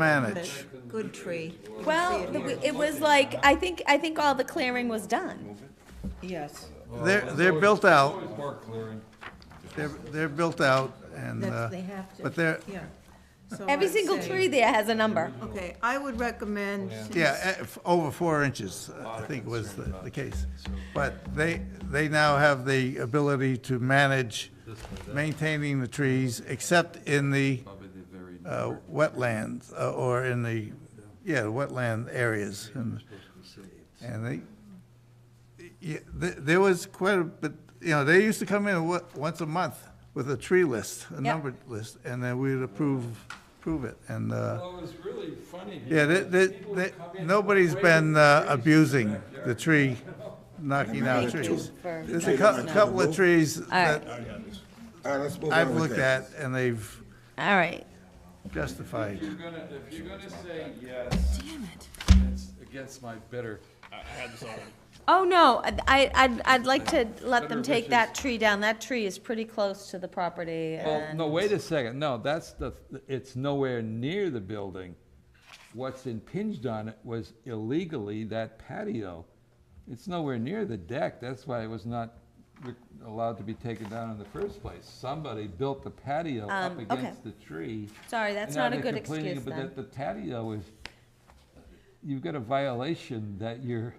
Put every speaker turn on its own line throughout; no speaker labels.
Self-manage.
Good tree.
Well, the- it was like, I think, I think all the clearing was done.
Yes.
They're, they're built out,
Always work clearing.
they're, they're built out, and, uh,
That's, they have to.
but they're,
Yeah. So
Every
I'd
single
say-
tree there has a number.
Okay, I would recommend. since-
yeah, eh, f- over four inches, uh, I think was the, the case. But they, they now have the ability to manage maintaining the trees, except in the, uh, wetlands, uh, or in the, yeah, wetland areas, and, and they, Yeah, th there was quite a bit, you know, they used to come in wa- once a month with a tree list, a
Yeah.
numbered list, and then we'd approve, approve it, and, uh,
Well, it was really funny.
yeah, they,
because
they,
people
they-
would come in
nobody's
with
been uh,
waving trees.
abusing the tree, knocking out trees.
for-
There's a cou- couple of trees that
All right, let's move on.
I've
with
looked
that.
at, and they've
All right.
justified.
If you're gonna, if you're gonna say yes. Damn it. It's against my better.
Oh, no, I, I'd, I'd like to let them take that tree down. That tree is pretty close to the property
Well,
and,
no, wait a second, no, that's the, it's nowhere near the building. What's impinged on it was illegally that patio. It's nowhere near the deck, that's why it was not re- allowed to be taken down in the first place. Somebody built the patio
Um,
up
okay.
against the tree.
sorry, that's
And now
not a
they're
good
complaining
excuse
about
then.
that The patio is, you've got a violation that you're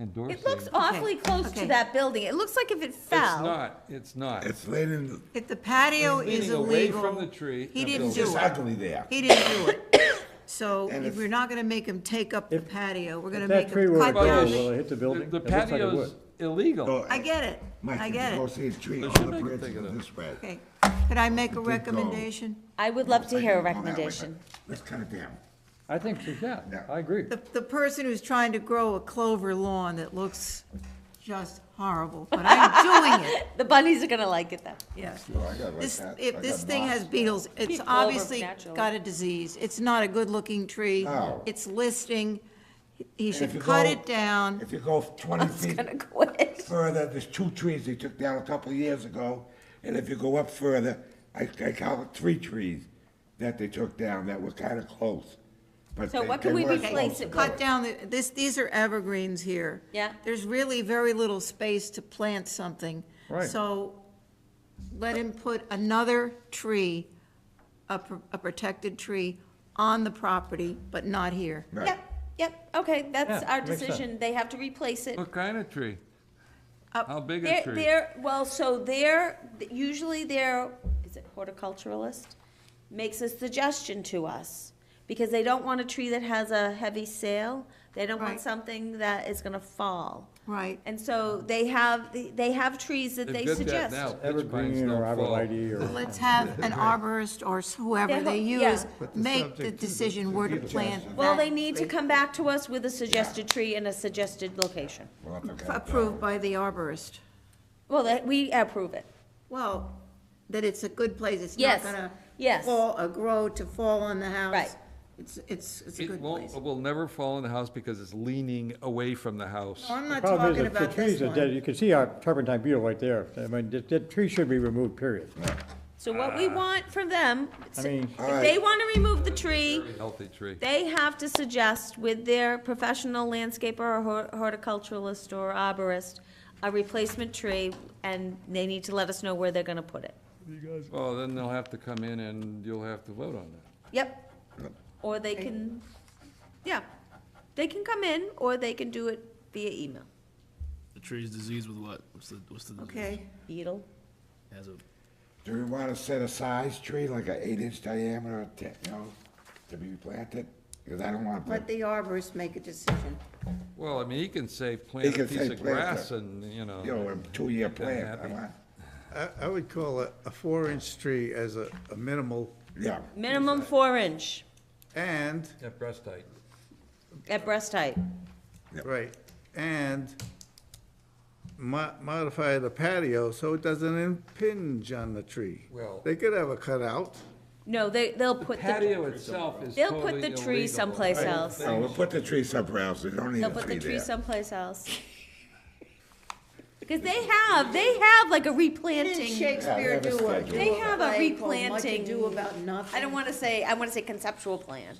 endorsing.
It looks awfully close to
okay.
that building. It looks like if it
It's
fell.
not, it's not.
It's late in, the-
If the patio
It's
is
leaning away
illegal.
from the tree
He
and
didn't
building.
do
it's
it.
ugly there.
He didn't do it. So
And if-
we're not gonna make him take up the patio. We're gonna
If
make
that tree
him
were
cut
to grow,
down.
will
the-
it hit the building?
The
It looks like it would.
patio's illegal.
Oh,
I get it.
Mike,
I
if you
get
Go
it.
see a tree, all
should
the
make it
branches
bigger
are
though.
this way.
Okay. Could I make a
It did go.
recommendation?
I would love to
Like,
hear a
go that way,
recommendation.
but Let's cut it down.
I think, so, yeah,
Yeah.
I agree.
The, the person who's trying to grow a clover lawn that looks just horrible, but I'm doing it.
The bunnies are gonna like it though.
Yes.
Oh, I got like
This,
that. I
if this
got
thing has
moss.
beetles, it's
Clover,
obviously
naturally.
got a disease. It's not a good-looking tree.
No.
It's listing. He
And if
should
you
cut
go-
it down.
If you go twenty feet
Gonna quit.
further, there's two trees they took down a couple of years ago. And if you go up further, I, I count three trees that they took down that were kind of close. But
So
they-
what can
they
we
weren't
replace
close
it
enough.
Cut down, the this, these are evergreens here.
Yeah.
There's really very little space to plant something.
Right.
So let him put another tree, a, pr- a protected tree, on the property, but not here.
Right.
Yep, yep, okay, that's
Yeah,
our
makes sense.
decision. They have to replace it.
What kind of tree?
Up-
How big a
They're,
tree?
they're, well, so they're, usually they're, is it horticulturalist? Makes a suggestion to us, because they don't want a tree that has a heavy sail. They don't want
Right.
something that is gonna fall.
Right.
And so they have, they have trees that they
They've got that
suggest.
now. Pitch pines
Evergreen or
don't fall.
arborvitae or,
Let's have an arborist or whoever they
Yeah.
use
But the
make the
subject is
decision where to plant
Well, they
that,
need to come back to us with a suggested tree and a suggested location.
We'll have to cut it
approved by the arborist.
Well, that, we approve it.
Well, that it's a good place, it's
Yes,
not gonna
yes.
fall, or grow to fall on the house.
Right.
It's, it's, it's a
It
good
won't,
place.
it will never fall in the house because it's leaning away from the house.
I'm not
problem is,
talking
if the
about
trees
this
are dead,
one.
you can see our turpentine beetle right there. I mean, that, that tree should be removed, period.
So what
Ah.
we want from them,
I mean,
if they wanna remove the tree,
Healthy tree.
They have to suggest with their professional landscaper or hor- horticulturalist or arborist, a replacement tree, and they need to let us know where they're gonna put it.
Well, then they'll have to come in and you'll have to vote on that.
Yep. Or they can, yeah, they can come in, or they can do it via email.
The tree's diseased with what? What's the, what's the disease?
Okay,
Beetle.
Has a,
Do we want to set a size tree, like an eight-inch diameter, te- you know, to be planted? Because I don't want to
let
plant,
the arborist make a decision.
Well, I mean, he can say plant a
can say
piece of
plant
grass
that.
and, you know.
you know, a two-year plant. I
happy.
want,
I, I would call a, a four-inch tree as a, a minimal,
yeah.
Minimum four inch
and
At breast height.
at breast height.
Right, and mo- modify the patio so it doesn't impinge on the tree.
Well-
They could have a cutout.
No, they, they'll put the,
Patio itself is
they'll
totally
put the tree
illegal.
someplace else.
Oh, we'll put the tree somewhere else, we don't need
They'll
a
put the
tree
tree
there.
someplace else. Because they have, they have like a
Didn't
replanting.
Shakespeare
Yeah, they have a
do a,
schedule.
do
They have a
play called Much
replanting-
Ado About Nothing?
I don't want to say, I want to say conceptual plan.